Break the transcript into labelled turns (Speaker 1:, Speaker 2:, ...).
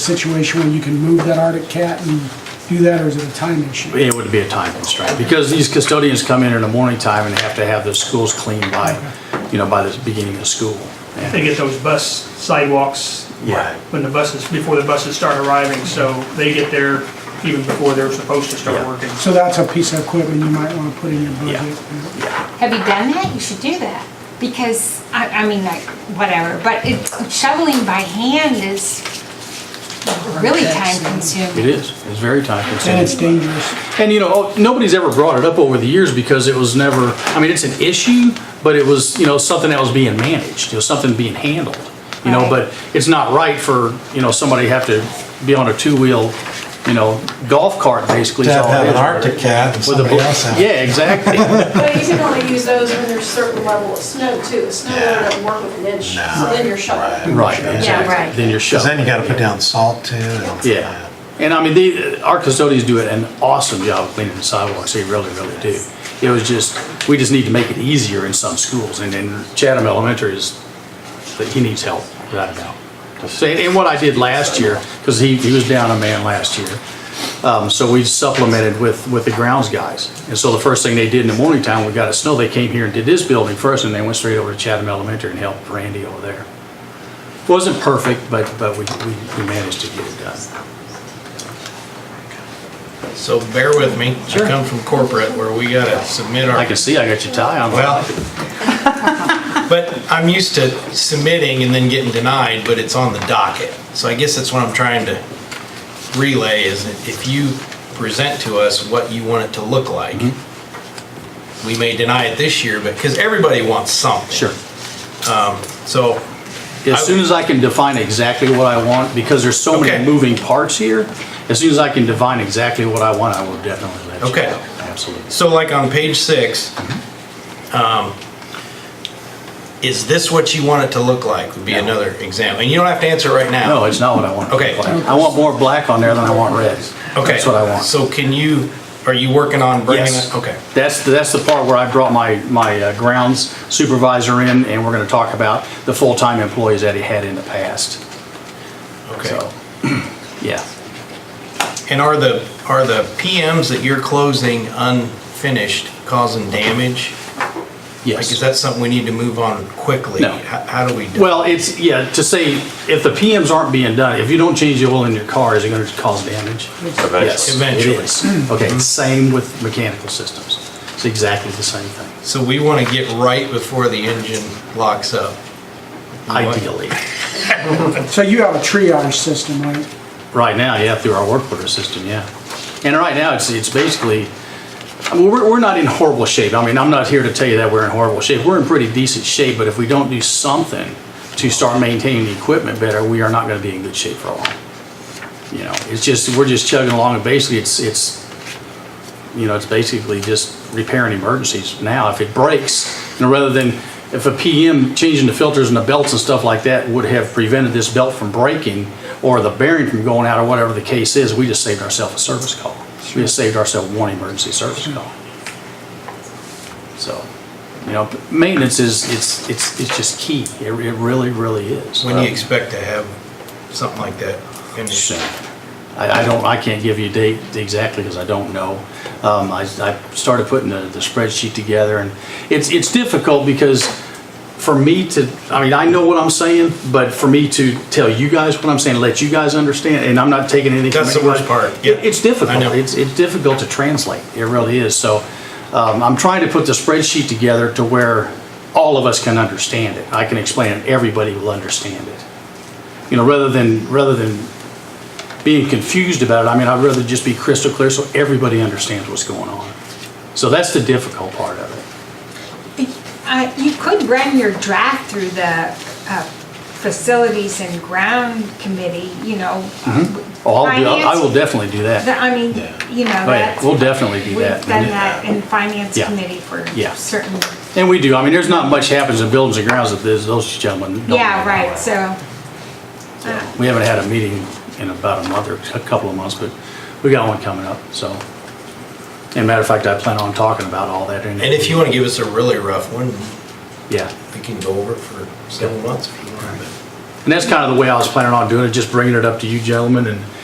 Speaker 1: situation where you can move that Arctic cat and do that, or is it a time issue?
Speaker 2: it would be a time constraint, because these custodians come in in the morning time and have to have the schools cleaned by, you know, by the beginning of school. And-
Speaker 3: They get those bus sidewalks
Speaker 2: Yeah,
Speaker 3: when the buses, before the buses start arriving, so they get there even before they're supposed to start
Speaker 2: Yeah.
Speaker 3: working.
Speaker 1: So that's a piece of equipment you might want to put in your budget.
Speaker 4: Have you done that? You should do that. Because, I, I mean, like, whatever, but it, shoveling by hand is really time
Speaker 2: it
Speaker 4: consuming.
Speaker 2: is, it's very time
Speaker 1: And it's
Speaker 2: consuming.
Speaker 1: dangerous.
Speaker 2: And you know, oh, nobody's ever brought it up over the years because it was never, I mean, it's an issue, but it was, you know, something that was being managed, you know, something being handled. You know,
Speaker 4: Right.
Speaker 2: but it's not right for, you know, somebody to have to be on a two-wheel, you know, golf cart basically.
Speaker 5: To
Speaker 2: is
Speaker 5: have,
Speaker 2: all it
Speaker 5: have an
Speaker 2: is.
Speaker 5: Arctic cat and
Speaker 2: With a
Speaker 5: somebody
Speaker 2: bl-
Speaker 5: else have. it.
Speaker 2: Yeah, exactly.
Speaker 6: But you can only use those when there's certain level of snow too. The snow doesn't work with an inch, so then you're shoveling.
Speaker 2: Right, exactly.
Speaker 4: right.
Speaker 2: Then you're shut.
Speaker 5: Cause then you gotta put down salt too. and-
Speaker 2: Yeah, and I mean, they, our custodians do an awesome job of cleaning the sidewalks, they really, really do. It was just, we just need to make it easier in some schools, and in Chatham Elementary is, that he needs help, without a doubt. So, And and what I did last year, because he, he was down a man last year, um, so we supplemented with, with the grounds guys. And so the first thing they did in the morning time, we got a snow, they came here and did this building first, and they went straight over to Chatham Elementary and helped Randy over there. Wasn't perfect, but, but we, we we managed to get it done.
Speaker 7: So bear with me. I come from corporate where we gotta submit
Speaker 2: I
Speaker 7: our,
Speaker 2: can see I got your tie on.
Speaker 7: well, but I'm used to submitting and then getting denied, but it's on the docket. So I guess that's what I'm trying to relay is that if you present to us what you want it to look like, we may deny it this year because everybody wants something.
Speaker 2: Mm-hmm. Sure.
Speaker 7: So,
Speaker 2: As soon as I can define exactly what I want, because there's so many
Speaker 7: Okay.
Speaker 2: moving parts here, as soon as I can define exactly what I want, I will definitely let you know.
Speaker 7: Okay.
Speaker 2: Absolutely.
Speaker 7: so like on page six,
Speaker 2: Mm-hmm.
Speaker 7: um, is this what you want it to look like would be
Speaker 2: No.
Speaker 7: another example. And you don't have to answer right now.
Speaker 2: No, it's not what I want.
Speaker 7: Okay.
Speaker 2: I want more black on there than I want red.
Speaker 7: Okay.
Speaker 2: That's what I want.
Speaker 7: So can you, are you working on bringing
Speaker 2: Yes.
Speaker 7: it? Okay.
Speaker 2: That's, that's the part where I brought my, my uh, grounds supervisor in, and we're gonna talk about the full-time employees that he had in the past.
Speaker 7: Okay.
Speaker 2: So, yeah.
Speaker 7: And are the, are the PMs that you're closing unfinished causing damage? Like,
Speaker 2: Yes.
Speaker 7: is that something we need to move on quickly?
Speaker 2: No.
Speaker 7: How how do we? do-
Speaker 2: Well, it's, yeah, to say, if the PMs aren't being done, if you don't change the oil in your car, is it gonna cause damage? Yes,
Speaker 7: Eventually.
Speaker 2: it is. Okay, same with mechanical systems. It's exactly the same thing,
Speaker 7: So we want to get right before the engine locks up.
Speaker 2: ideally.
Speaker 1: So you have a triage system, right?
Speaker 2: Right now, yeah, through our work order system, yeah. And right now, it's, it's basically, I mean, we're, we're not in horrible shape. I mean, I'm not here to tell you that we're in horrible shape. We're in pretty decent shape, but if we don't do something to start maintaining the equipment better, we are not gonna be in good shape for long. You know, it's just, we're just chugging along and basically it's, it's, you know, it's basically just repairing emergencies now if it breaks. And rather than, if a PM changing the filters and the belts and stuff like that would have prevented this belt from breaking or the bearing from going out or whatever the case is, we just saved ourselves a service call. We just saved ourselves one emergency service call. So, you know, maintenance is, it's, it's, it's just key. It it really, really is.
Speaker 7: When do you
Speaker 2: Um,
Speaker 7: expect to have something like that finished?
Speaker 2: soon. I, I don't, I can't give you a date exactly because I don't know. Um, I, I started putting the, the spreadsheet together and it's, it's difficult because for me to, I mean, I know what I'm saying, but for me to tell you guys what I'm saying, let you guys understand, and I'm not taking anything. from
Speaker 7: That's the worst
Speaker 2: anybody.
Speaker 7: part, yeah.
Speaker 2: It- It's difficult.
Speaker 7: I know.
Speaker 2: It's, it's difficult to translate. It really is. So, um, I'm trying to put the spreadsheet together to where all of us can understand it. I can explain it. Everybody will understand it you know, rather than, rather than being confused about it, I mean, I'd rather just be crystal clear so everybody understands what's going on. So that's the difficult part of it.
Speaker 4: Uh, you could run your draft through the, uh, facilities and ground committee, you know.
Speaker 2: Oh, I'll do, I
Speaker 4: finance-
Speaker 2: will definitely do
Speaker 4: the-
Speaker 2: that.
Speaker 4: I mean, you know,
Speaker 2: Oh, yeah,
Speaker 4: that's,
Speaker 2: we'll definitely do
Speaker 4: we've
Speaker 2: that.
Speaker 4: done that in finance
Speaker 2: Yeah.
Speaker 4: committee for
Speaker 2: Yeah.
Speaker 4: certain,
Speaker 2: And we do, I mean, there's not much happens in buildings and grounds that this- those gentlemen don't.
Speaker 4: yeah,
Speaker 2: know
Speaker 4: right,
Speaker 2: about.
Speaker 4: so.
Speaker 2: We haven't had a meeting in about a month or a couple of months, but we got one coming up, so. And matter of fact, I plan on talking about all that. And
Speaker 7: And if you want to give us a really rough one,
Speaker 2: Yeah,
Speaker 7: we can go over it for several months if you want. but-
Speaker 2: And that's kind of the way I was planning on doing it, just bringing it up to you gentlemen and